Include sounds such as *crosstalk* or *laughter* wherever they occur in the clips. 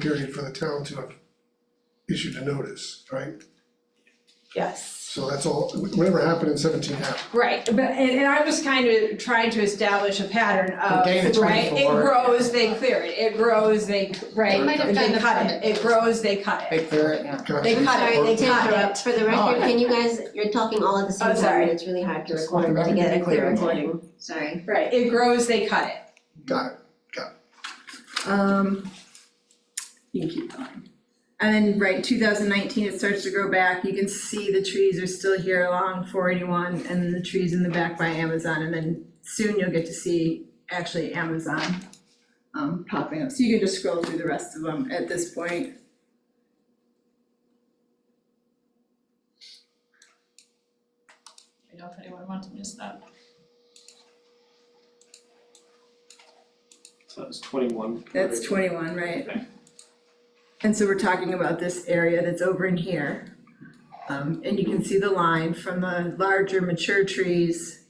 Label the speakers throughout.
Speaker 1: period for the town to have issued a notice, right?
Speaker 2: Yes.
Speaker 1: So that's all, whatever happened in seventeen happened.
Speaker 2: Right, but, and, and I'm just kind of trying to establish a pattern of,
Speaker 1: Gain of
Speaker 2: right, it
Speaker 1: 24.
Speaker 2: grows, they clear it, it grows, they,
Speaker 3: They
Speaker 2: right,
Speaker 3: might have done
Speaker 2: they
Speaker 3: the
Speaker 2: cut it,
Speaker 3: permit.
Speaker 2: it grows, they cut it.
Speaker 4: They clear it, yeah.
Speaker 1: Gotcha.
Speaker 2: They cut
Speaker 3: Sorry,
Speaker 2: it,
Speaker 3: they
Speaker 2: they cut it.
Speaker 3: interrupt, for the record, can you guys, you're talking all at the
Speaker 2: Oh,
Speaker 3: same time,
Speaker 2: sorry.
Speaker 3: and it's really hard to
Speaker 4: Just want
Speaker 3: record, to get
Speaker 4: everybody
Speaker 3: a clear
Speaker 4: clear.
Speaker 3: recording, sorry.
Speaker 2: Right, it grows, they cut it.
Speaker 1: Got it.
Speaker 5: Um, you can keep going. And then, right, two thousand nineteen, it starts to grow back, you can see the trees are still here along four eighty-one, and the trees in the back by Amazon, and then soon you'll get to see actually Amazon um, popping up, so you can just scroll through the rest of them at this point.
Speaker 6: I don't know if anyone wants to miss that.
Speaker 7: So that was twenty-one.
Speaker 5: That's twenty-one, right?
Speaker 7: Okay.
Speaker 5: And so we're talking about this area that's over in here. Um, and you can see the line from the larger mature trees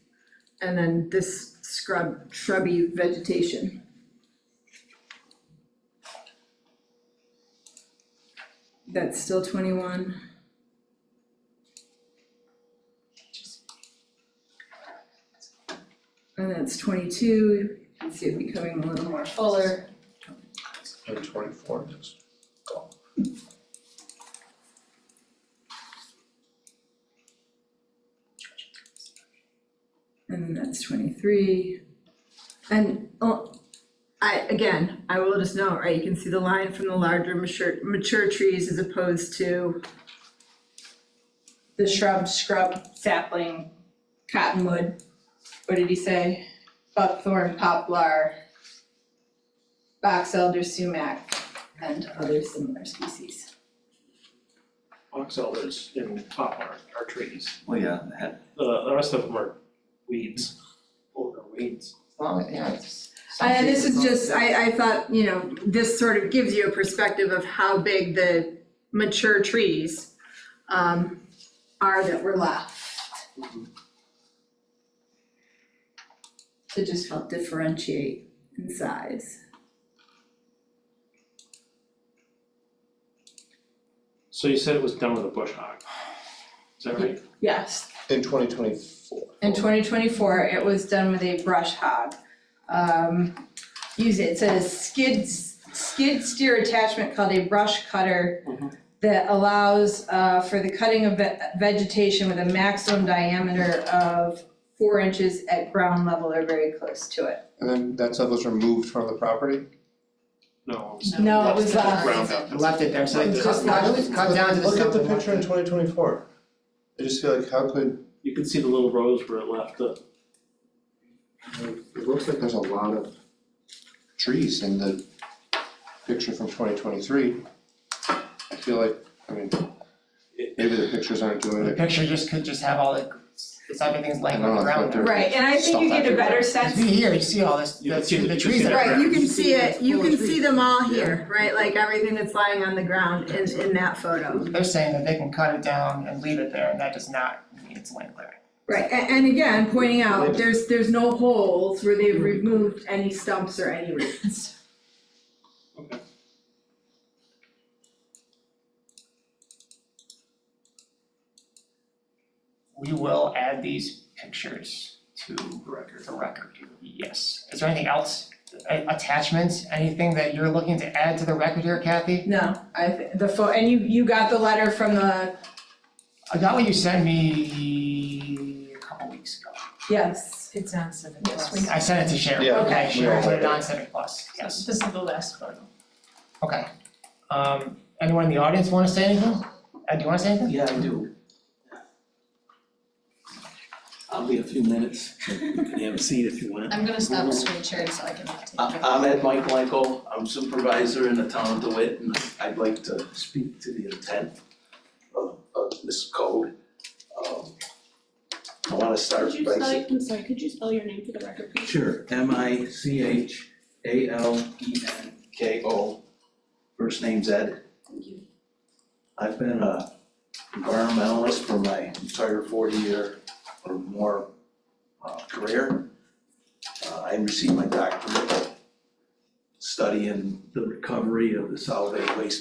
Speaker 5: and then this scrub, shrubby vegetation. That's still twenty-one. And that's twenty-two, you can see it becoming a little more fuller.
Speaker 4: And twenty-four is gone.
Speaker 5: And then that's twenty-three. And, oh, I, again, I will just note, right, you can see the line from the larger mature, mature trees as opposed to,
Speaker 2: The shrub, scrub, sapling, cottonwood, what did he say? Buckthorn, poplar, box elder, sumac, and other similar species.
Speaker 7: Box elders and poplar are trees.
Speaker 8: Well, yeah, the head-
Speaker 7: The, the rest of them are weeds, older weeds.
Speaker 4: As long as, yeah, it's.
Speaker 5: and this is just, I, I thought, you know, this sort of gives you a perspective of how big the mature trees um, are that were left. To just help differentiate in size.
Speaker 7: So you said it was done with a bush hog. Is that right?
Speaker 2: Yes,
Speaker 4: In twenty twenty-four.
Speaker 2: In twenty twenty-four, it was done with a brush hog. Um, use it, it says skid, skid steer attachment called a brush cutter
Speaker 7: Mhm.
Speaker 2: that allows, uh, for the cutting of ve- vegetation with a maximum diameter of four inches at ground level or very close to it.
Speaker 9: And then that stuff was removed from the property?
Speaker 7: No.
Speaker 2: No, it
Speaker 7: that's
Speaker 2: was
Speaker 7: the
Speaker 2: left.
Speaker 7: ground up.
Speaker 4: Left it there, so it's
Speaker 7: Just
Speaker 4: just cut, cut down to the
Speaker 9: Look
Speaker 4: stuff.
Speaker 9: at the
Speaker 4: that left
Speaker 9: picture in
Speaker 4: it.
Speaker 9: twenty twenty-four. I just feel like how could,
Speaker 7: You can see the little rows where it left the,
Speaker 9: it looks like there's a lot of trees in the picture from twenty twenty-three. I feel like, I mean, maybe the pictures aren't doing
Speaker 4: The
Speaker 9: it.
Speaker 4: picture just could just have all the, it's everything's laying
Speaker 9: I
Speaker 4: on
Speaker 9: know,
Speaker 4: the
Speaker 9: that's
Speaker 4: ground
Speaker 9: what
Speaker 4: there.
Speaker 2: Right, and I think you
Speaker 9: Stuff
Speaker 2: get a better
Speaker 9: everywhere.
Speaker 2: sense
Speaker 4: See here, you see all this,
Speaker 7: You
Speaker 4: the
Speaker 7: can see
Speaker 4: the
Speaker 7: the- you can
Speaker 4: trees
Speaker 7: see
Speaker 4: are.
Speaker 7: the
Speaker 5: Right, you can see it, you can
Speaker 4: Full of
Speaker 5: see them all here, right, like everything that's lying on the ground in, in that photo.
Speaker 4: They're saying that they can cut it down and leave it there, and that does not mean it's land clearing.
Speaker 5: Right, a- and again, pointing out, there's, there's no holes where they've removed any stumps or any roots.
Speaker 4: We will add these pictures to
Speaker 7: Record.
Speaker 4: the record, yes. Is there anything else, A- attachments, anything that you're looking to add to the record here, Kathy?
Speaker 2: *laughs* No, I, thi- the pho, and you, you got the letter from the,
Speaker 4: I got what you sent me a couple weeks ago.
Speaker 2: yes,
Speaker 10: It's on seven
Speaker 2: Yes,
Speaker 10: plus.
Speaker 2: we-
Speaker 4: I sent it to Sharon,
Speaker 9: Yeah,
Speaker 4: okay,
Speaker 2: we
Speaker 4: Sharon,
Speaker 9: all
Speaker 4: put it
Speaker 9: did.
Speaker 4: on seven plus, yes,
Speaker 6: This is the last photo.
Speaker 4: okay. Um, anyone in the audience wanna say anything? Ed, do you wanna say anything?
Speaker 8: Oh, yeah, I do. I'll be a few minutes, you can have a seat if you want.
Speaker 6: I'm gonna stop the screen sharing so I can take
Speaker 8: I-
Speaker 6: it.
Speaker 8: I'm Ed Mike Uh, Michael, I'm supervisor in the town of DeWitt, and I'd like to speak to the intent of, of this code. Um, I wanna start
Speaker 11: Could you
Speaker 8: by
Speaker 11: spell,
Speaker 8: saying.
Speaker 11: I'm sorry, could you spell your name for the record, please?
Speaker 8: Sure, M I C H A L E N K O, first name's Ed.
Speaker 11: Thank you.
Speaker 8: I've been a environmentalist for my entire forty year or more uh, career. Uh, I received my doctorate studying the recovery of the solid waste